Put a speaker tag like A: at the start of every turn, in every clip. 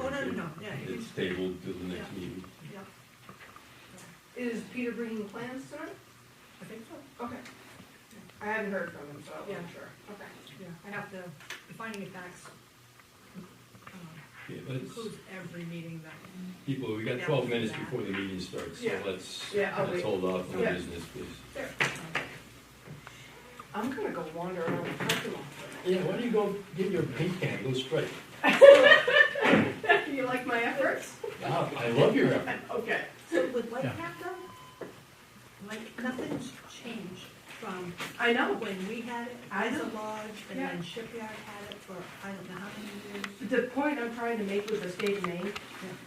A: Oh, no, no, no, yeah, you
B: It's tabled till the next meeting.
A: can- yeah,
C: Is Peter bringing plans tonight?
A: I think so,
C: Okay. I hadn't heard from him, so I'm
A: Yeah.
C: not sure. Okay.
A: yeah, I have to, the finding of facts. um,
B: Yeah, let's,
A: Includes every meeting that,
B: people, we got twelve minutes before the meeting starts, so
C: Yeah.
B: let's,
C: Yeah, I'll
B: let's
C: wait.
B: hold off on
C: Yeah.
B: business, please.
C: I'm gonna go wander around the parking lot for
B: Yeah, why don't you go get your paint can, go straight.
C: a minute. You like my efforts?
B: Wow, I love your effort.
C: Okay.
A: so with Whitecap though, like, nothing's changed from
C: I know.
A: when we had it,
C: I
A: as a
C: know.
A: lodge, and
C: Yeah.
A: then Shipyard had it for, I don't know how many years.
C: The point I'm trying to make with the state of Maine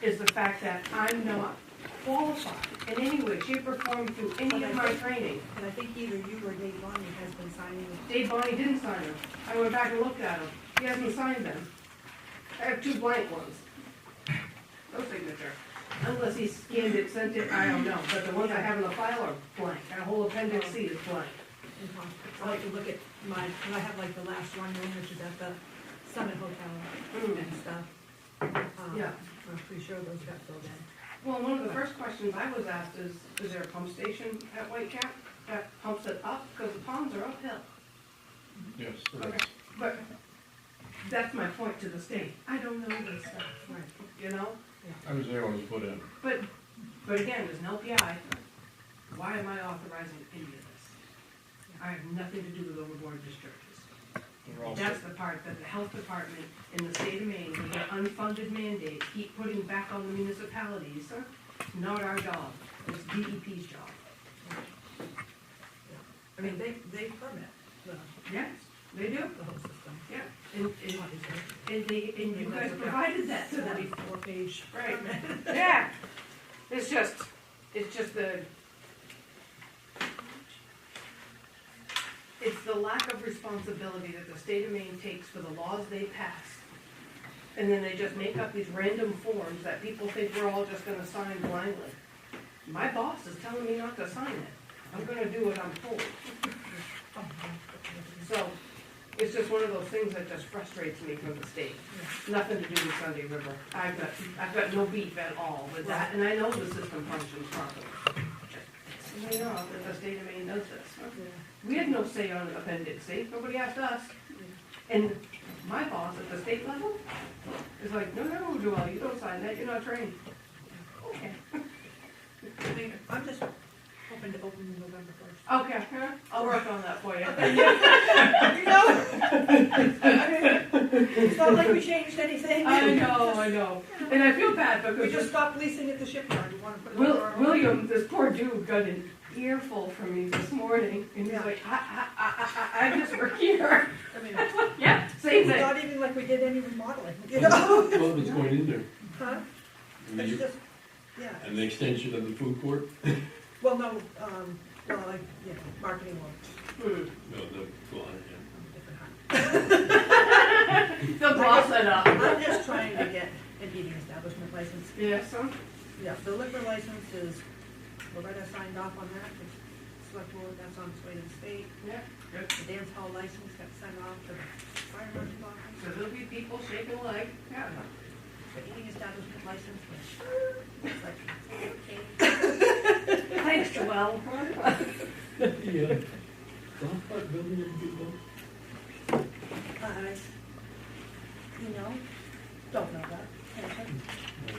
C: is the fact that I'm not qualified in any way, shape, or form through any of my training.
A: And I think either you or Dave Bonny has been signing it.
C: Dave Bonny didn't sign them. I went back and looked at them. He hasn't signed them. I have two blank ones. No signature. Unless he scanned it, sent it, I don't know, but the ones I have in the file are blank. That whole appendix C is blank.
A: in Palm. I like to look at my, and I have like the last one room, which is at the Summit Hotel
C: Hmm.
A: and stuff. Um,
C: Yeah.
A: I'm pretty sure those got filled in.
C: Well, one of the first questions I was asked is, is there a pump station at White Cap that pumps it up? Because the ponds are uphill.
B: Yes.
C: Okay. But that's my point to the state. I don't know this stuff,
A: Right.
C: you know?
B: I was there when it was put in.
C: But, but again, as an LPI, why am I authorizing any of this? I have nothing to do with overboard discharges. That's the part that the health department in the state of Maine, with their unfunded mandate, keep putting back on the municipalities. Not our job, it's DEP's job.
A: I mean, they, they permit the,
C: Yes, they do,
A: the whole system.
C: yeah. And, and,
A: obviously.
C: and they, and you guys provided that to them.
A: Forty-four page
C: Right.
A: permit.
C: Yeah, it's just, it's just the. It's the lack of responsibility that the state of Maine takes for the laws they pass. And then they just make up these random forms that people think we're all just gonna sign blindly. My boss is telling me not to sign it, I'm gonna do what I'm told.
A: Oh,
C: So, it's just one of those things that just frustrates me from the state. Nothing to do with Sunday River. I've got, I've got no beef at all with that, and I know the system functions properly. And I know that the state of Maine does this.
A: Yeah.
C: We had no say on appendix C, nobody asked us. And my boss at the state level is like, no, no, Joelle, you don't sign that, you're not trained. Okay,
A: I mean, I'm just hoping to open in November first.
C: okay, huh? I'll work on that for you.
A: You know? It's not like we changed anything.
C: I know, I know, and I feel bad because.
A: We just stopped leasing at the shipyard, we wanna put it over
C: Will,
A: our own.
C: William, this poor dude got an earful from me this morning, and he's like, I, I, I, I, I just work here.
A: I mean,
C: Yeah, same
A: It's
C: thing.
A: not even like we did any remodeling, you know?
B: Well, what's going in there?
A: Huh?
B: I mean,
A: It's
B: you-
A: just, yeah,
B: An extension of the food court?
A: well, no, um, well, like, yeah, marketing one.
C: Hmm.
B: No, the, well, yeah.
C: They'll gloss it up.
A: I'm just trying to get an eating establishment license.
C: Yeah, so,
A: Yeah, the liquor license is, Loretta signed off on that, the select board, that's on its way to the state.
C: yeah, good.
A: The dance hall license got sent off to the fire marshal office.
C: So there'll be people shaking like, yeah.
A: The eating establishment license, which, it's like, okay.
C: Thanks, Joelle.
B: The, uh, the hot pot building in Bidwell?
A: Uh, you know, don't know that.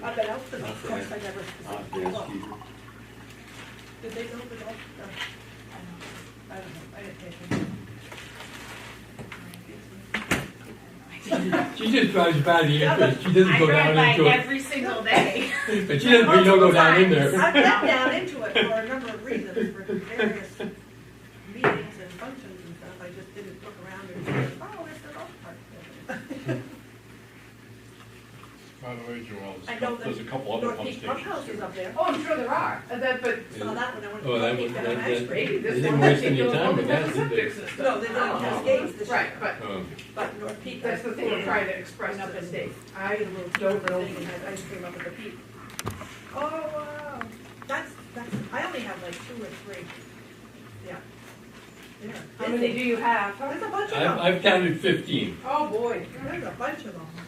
A: I bet out the golf course, I never.
B: Ah, yes, you-
A: Did they build the golf? no. I don't know, I don't know, I didn't pay attention.
D: She just drives by the entrance, she doesn't
E: I
D: go
E: drive
D: down
E: by
D: into it,
E: every single day.
D: but she doesn't, we don't go down in there.
A: I've been down into it for a number of reasons, for various meetings and functions and stuff, I just didn't look around and say, oh, there's the golf cart.
F: By the way, Joel,
A: I know
F: there's a couple other
A: North
F: pump
A: Peak Pump
F: stations
A: House is
F: too.
A: up there,
C: Oh, I'm sure there are, Uh, that, but
A: saw that when I went to
D: Oh, that
A: North Peak,
D: would-
A: got an
D: that-
A: ice
D: that-
A: cream.
C: maybe
D: They
C: this
D: didn't
C: one,
D: waste
C: they
D: any
C: don't
D: time
C: have
D: with that,
C: a
D: did
C: septic
D: they?
C: system.
A: No, they didn't
D: Oh.
A: have gates this year,
C: Oh. Right, but
D: Um,
A: but North Peak.
C: that's the thing I'm trying to express to the state. I don't know.
A: and had ice cream up at the peak. Oh, wow, that's, that's, I only have like two or three, yeah. Yeah.
C: How many do you have?
A: There's a bunch of
D: I've,
A: them,
D: I've counted fifteen.
C: Oh, boy.
A: there's a bunch of them.